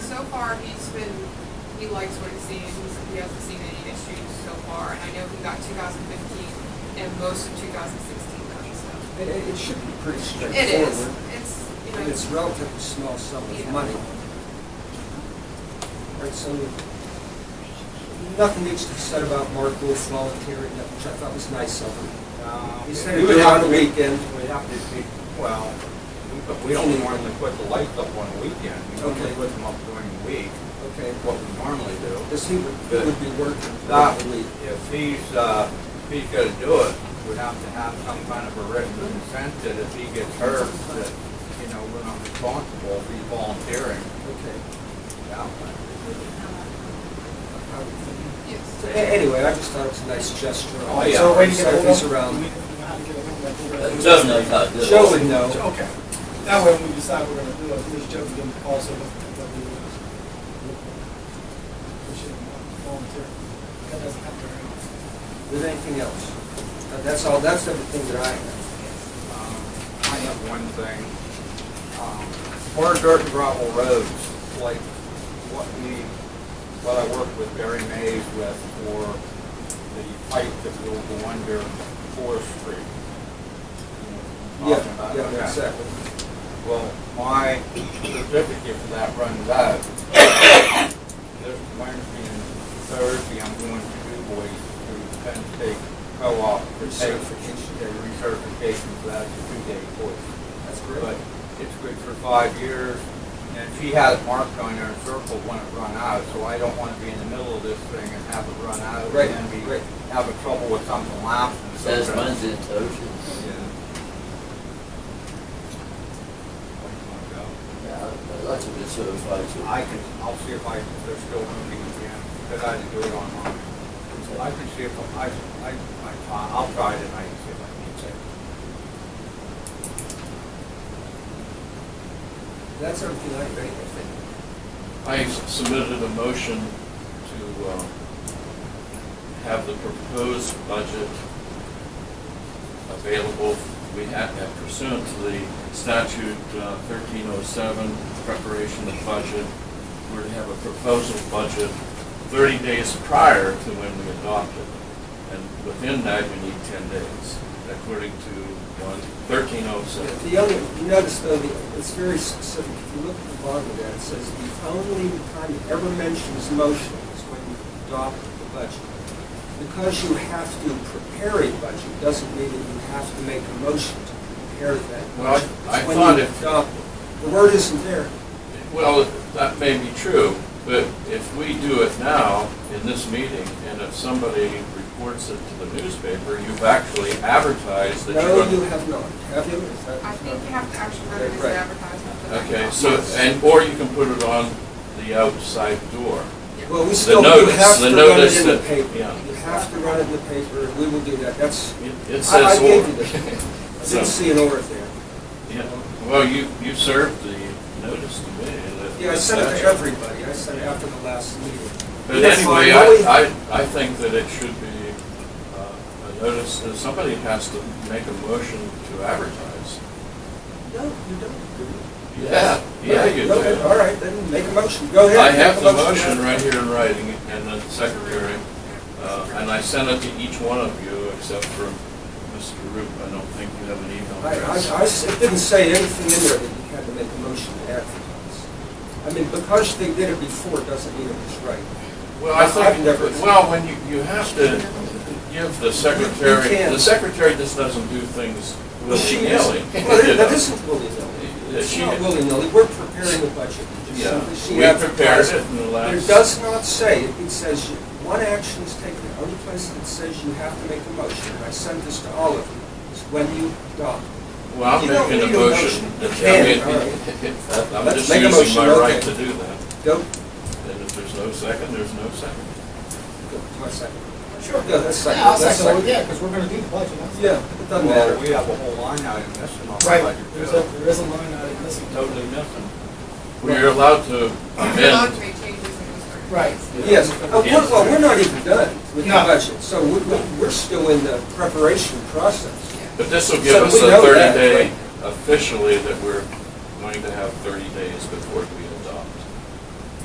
far, he's been, he likes what he's seen, He's- he hasn't seen any issues so far, and I know he got two thousand fifteen and most of two thousand sixteen done, so. It, it it should be pretty It is, straightforward. it's, you know. And it's relatively small sum Yeah. of money. Right, so nothing needs to be said about Mark Wolf volunteering, which I thought was nice of him. Uh, He said he'd do it on the weekend. We'd have to, be- well, we- we only normally put the lights up on the weekend. We normally Okay. put them up during the week, Okay, what we normally do. because he would, he would be working Uh, that week. If he's, uh, if he's gonna do it, we'd have to have some kind of a written consent that if he gets hurt, that, you know, we're not responsible if he's volunteering. Okay. Yeah. I would think. Yes. So a- Anyway, I just thought it was a nice gesture. Oh, yeah. So when he's around, Joe knows how to do it. Joe would know. Okay. That way, when we decide we're gonna do it, at least Joe can give a call, so that that we we should volunteer. That doesn't happen very often. With anything else? Uh, That's all, that's everything that I have. Um, I have one thing. Um, Hard dirt and gravel roads, like what we, what I worked with Barry Mays with for the pipe that will go under Forest Street. Yeah, You know, talking about, yeah, okay. exactly. Well, my certificate for that runs out. This Wednesday and Thursday, I'm going to DuBois to Penn State Co-op for Recertification. certification, their recertification, so that's a two-day course. That's But it's good for five years, and she has marked on her circle when it run out, so I don't want to be in the middle of this thing and have it run out. Right, And then right. we have a trouble with something It lapsing. so Says that- mine's in Toshin. Yeah. Yeah, that's a good certified. too. I can, I'll see if I, if they're still moving again, because I had to do it online. So I can see if, I, I, I, I'll try it and I can see if I can check. That's everything I think. I submitted a motion to uh, have the proposed budget available. We have pursuant to the statute uh, 1307, preparation of budget, we're to have a proposal budget 30 days prior to when we adopt it. And within that, we need 10 days, according to one- 1307. The only, you notice though, the- it's very specific. If you look at the bottom of that, it says the only time it ever mentions motion is when you adopt the budget. Because you have to prepare a budget doesn't mean that you have to make a motion to prepare that. Well, I- budget. It's I when thought you if- adopt it. The word isn't there. Well, that may be true, but if we do it now in this meeting, and if somebody reports it to the newspaper, you've actually advertised that No, you you're. have not. Have you? Is that- I think you have to actually run it as Right. an advertisement. but I Okay, don't so, know. and, or you can put it on the outside door. Yeah. Well, we The still, you notice- have the to run it notice in the that- paper. yeah. You have to run it in the paper, and we will do that. That's, It- It I- I says gave you this. or. I So, didn't see an or there. yeah. Well, you, you served the notice to me. that- Yeah, I sent it to that- everybody, I sent it after the last meeting. But That's fine. anyway, No, we- I, I, I think that it should be, uh, a notice, that somebody has to make a motion to advertise. No, you don't. do it. Yeah, yeah, you do. Okay, All right, then make a motion, go ahead. I have make a the motion right here in writing, and the secretary, uh, and I sent it to each one of you except for Mr. Roop. I don't think you have an email I, I, address. I s- it didn't say anything in there that you had to make a motion to advertise. I mean, because they did it before, doesn't mean it was right. Well, I I've think, never- well, when you, you have to give the secretary, You can. the secretary just doesn't do things She is- willy-nilly. Well, you it- that know. isn't willy-nilly. Yeah, It's she- not willy-nilly, we're preparing the budget. She- Yeah, she we prepared advertised it in the But It last. does not say, it says, you- one action is taken, the only place that says you have to make a motion, and I send this to all of you, is when you adopt. Well, I'm You don't making a need a motion. motion. that- You I mean, can, all right. I'm Let's just make a using my motion, okay. right to do that. Go, And if there's no second, there's no second. go, my second. Sure. Yeah, that's second, Yeah, I'll that's second, second. it, yeah, because we're gonna do the budget. that's- Yeah, it doesn't Well, we matter. have a whole line item missing on the Right, budget. there's too. a, there is a line item missing. Totally nothing. We're allowed to Not to amend. make changes in those terms. Right. Yes, Uh, we're- well, we're not even done with the No. budget, so we- we- we're still in the preparation process. But this will give So us we a know that, thirty day right? officially that we're going to have thirty days before we